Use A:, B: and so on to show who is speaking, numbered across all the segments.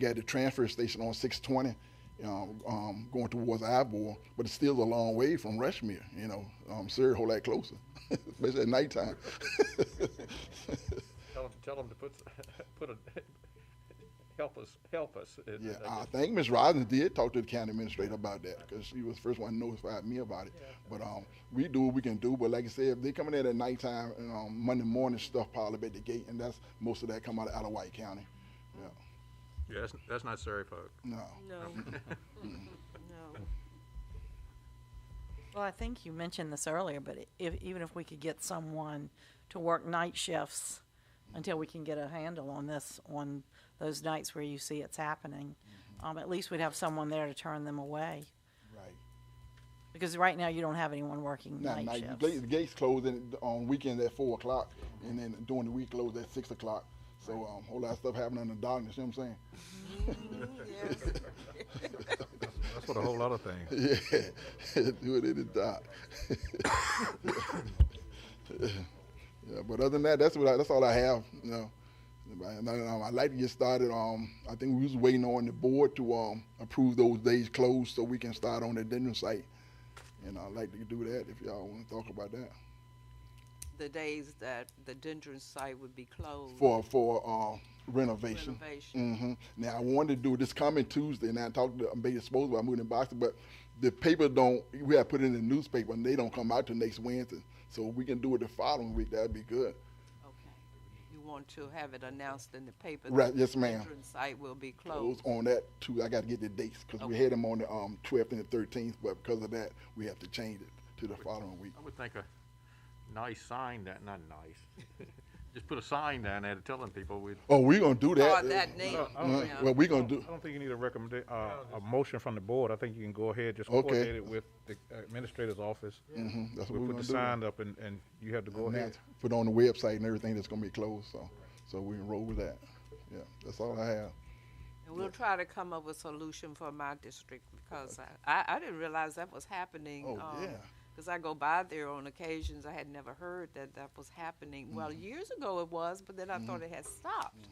A: got the transfer station on 620, you know, um, going towards Ivor, but it's still a long way from Rushmere, you know, um, Surrey a whole lot closer, especially at nighttime.
B: Tell them, tell them to put, put a, help us, help us. It-
A: Yeah,
B: I
A: I
B: just-
A: think Ms. Rosner did talk to the county administrator about that, because she was the first one to notify me about it. But, um, we do what we can do, but like I said, if they coming in at nighttime, and, um, Monday morning stuff pile up at the gate, and that's, most of that come out of, out of White County. Yeah,
B: Yeah, that's, that's not Surrey folk.
A: no,
C: No. No. Well, I think you mentioned this earlier, but i- if, even if we could get someone to work night shifts until we can get a handle on this, on those nights where you see it's happening, um, at least we'd have someone there to turn them away.
A: right.
C: Because right now you don't have anyone working
A: Not
C: night
A: night,
C: shifts.
A: the gates close in, on weekends at four o'clock, and then during the week close at six o'clock. So, um, whole lot of stuff happening in the darkness, you know what I'm saying?
D: That's what a whole lot of things.
A: Yeah, do it in the dark. yeah, but other than that, that's what I, that's all I have. You know, And I, um, I'd like to get started. Um, I think we was waiting on the board to um, approve those days closed so we can start on the dinner site. And I'd like to do that if y'all want to talk about that
E: the days that the Dendron site would be closed.
A: for for uh, renovation.
E: Renovation.
A: hmm Now I wanted to do this coming Tuesday, and I talked to I'm being supposed about moving in Boston, but the paper don't. We have put it in the newspaper, and they don't come out till next Wednesday. So if we can do it the following week. That'd be good.
E: Okay. You want to have it announced in the paper? that
A: Right, yes, ma'am.
E: The Dendron site will be
A: Those
E: closed.
A: on that too. I got to get the dates because we
E: Okay.
A: had them on the um, 12th and the 13th, but because of that, we have to change it to the following week.
B: I would think a nice sign, that, not nice, just put a sign down there telling people we,
A: Oh, we're gonna do that.
E: Or that name.
A: Uh,
E: yeah.
A: well, we're gonna do.
D: I don't think you need a recommend, uh, a motion from the board. I think you can go ahead, just
A: Okay.
D: coordinate it with the administrator's office.
A: Mhm, that's what
D: We'll
A: we're
D: put
A: gonna
D: the
A: do.
D: sign up and, and you have to go
A: Now,
D: ahead.
A: Put on the website and everything that's gonna be closed. So, so we can roll with that. Yeah, that's all I have.
E: And we'll try to come up with a solution for my district because I, I, I didn't realize that was happening.
A: Oh, yeah.
E: Because I go by there on occasions. I had never heard that that was happening. Well,
A: Mm-hmm.
E: years ago it was, but then I thought it had stopped.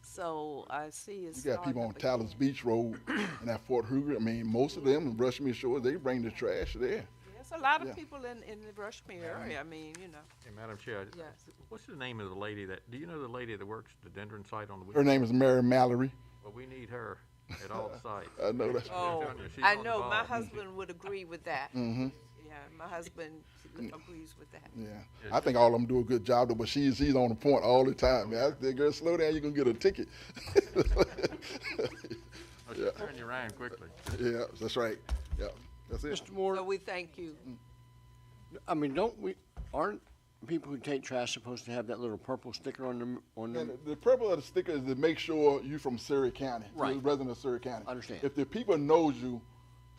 E: So I see it's.
A: You got people
E: starting
A: on
E: up again.
A: Tyler's Beach Road and at Fort Hoover. I mean, most of them, Rushmere Shore, they bring the trash there.
E: There's a lot
A: Yeah.
E: of people in, in the Rushmere area. I mean, you know.
B: Hey, Madam Chair. I-
E: Yes.
B: What's the name of the lady that, do you know the lady that works the Dendron site on the
A: Her
B: weekend?
A: name is Mary Mallory.
B: Well, we need her at all sites.
A: I know that.
E: Oh,
B: telling you, she's
E: I
B: on the
E: know, my
B: ball.
E: husband would agree with that. Yeah, my husband agrees with that.
A: Mm-hmm. Yeah, I think all of them do a good job though, but she's she's on the point all the time. Man, I said, girl, slow down, you're gonna get a ticket.
B: Oh, she'll turn you around quickly.
A: yeah, that's right. Yeah, that's it.
F: Mr. Moore,
E: So we thank you.
F: I mean, don't we, aren't people who take trash supposed to have that little purple sticker on them, on
A: And
F: them?
A: the purpose of the sticker is to make sure you from Surrey County, you're a
F: Right.
A: resident of Surrey County.
F: Understand.
A: If the people knows you,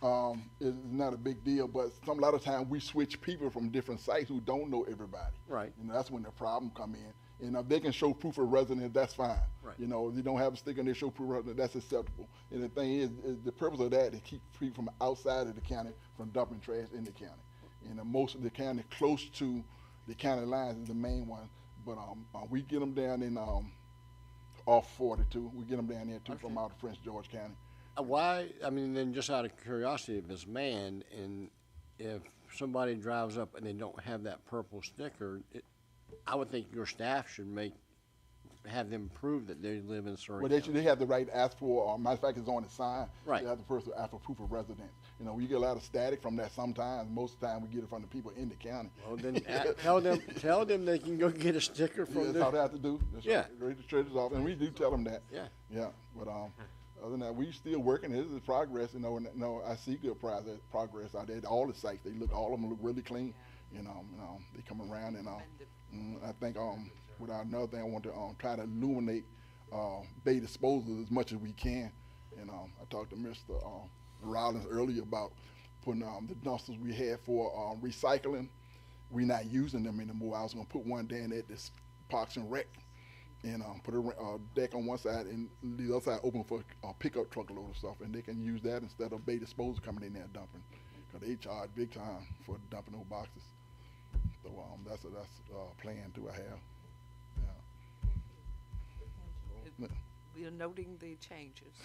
A: um, it's not a big deal. But some a lot of time we switch people from different sites who don't know everybody.
F: Right.
A: And that's when the problem come in. And if they can show proof of residence, that's fine.
F: Right.
A: You know, if you don't have a sticker and they show proof of residence, that's acceptable. And the thing is, is the purpose of that is to keep people from outside of the county from dumping trash in the county. And the most of the county close to the county lines is the main one. But um, uh, we get them down in um, off 42. We get them down there too from out of French George County.
F: Uh, Why, I mean, then just out of curiosity, if it's manned and if somebody drives up and they don't have that purple sticker, it, I would think your staff should make, have them prove that they live in Surrey
A: Well, they should,
F: County.
A: they have the right to ask for, or matter of fact, it's on the sign.
F: Right.
A: They have the person ask for proof of residence. You know, we get a lot of static from that sometimes. Most of the time, we get it from the people in the county.
F: Well, then, a- tell them, tell them they can go get a sticker from
A: That's all they
F: the,
A: have to do. That's
F: Yeah.
A: right. Read the treasurer's office, and we do tell them that.
F: Yeah.
A: Yeah, but, um, other than that, we still working, this is progress, you know, and, you know, I see good progress, progress out there, at all the sites, they look, all of them look really clean. You know, you know, they come around and, um, mm, I think, um, without another thing, I want to, um, try to illuminate, uh, bay disposal as much as we can. And, um, I talked to Mr. um, Rollins earlier about putting, um, the dumpsters we had for, um, recycling, we not using them anymore. I was gonna put one down at this Parks and Rec and um, put a ra- uh, deck on one side and leave the other side open for a pickup truck load of stuff, and they can use that instead of bay disposal coming in there dumping, because they charge big time for dumping those boxes. So um, that's a that's a plan too I have. Yeah.
E: we are noting the changes.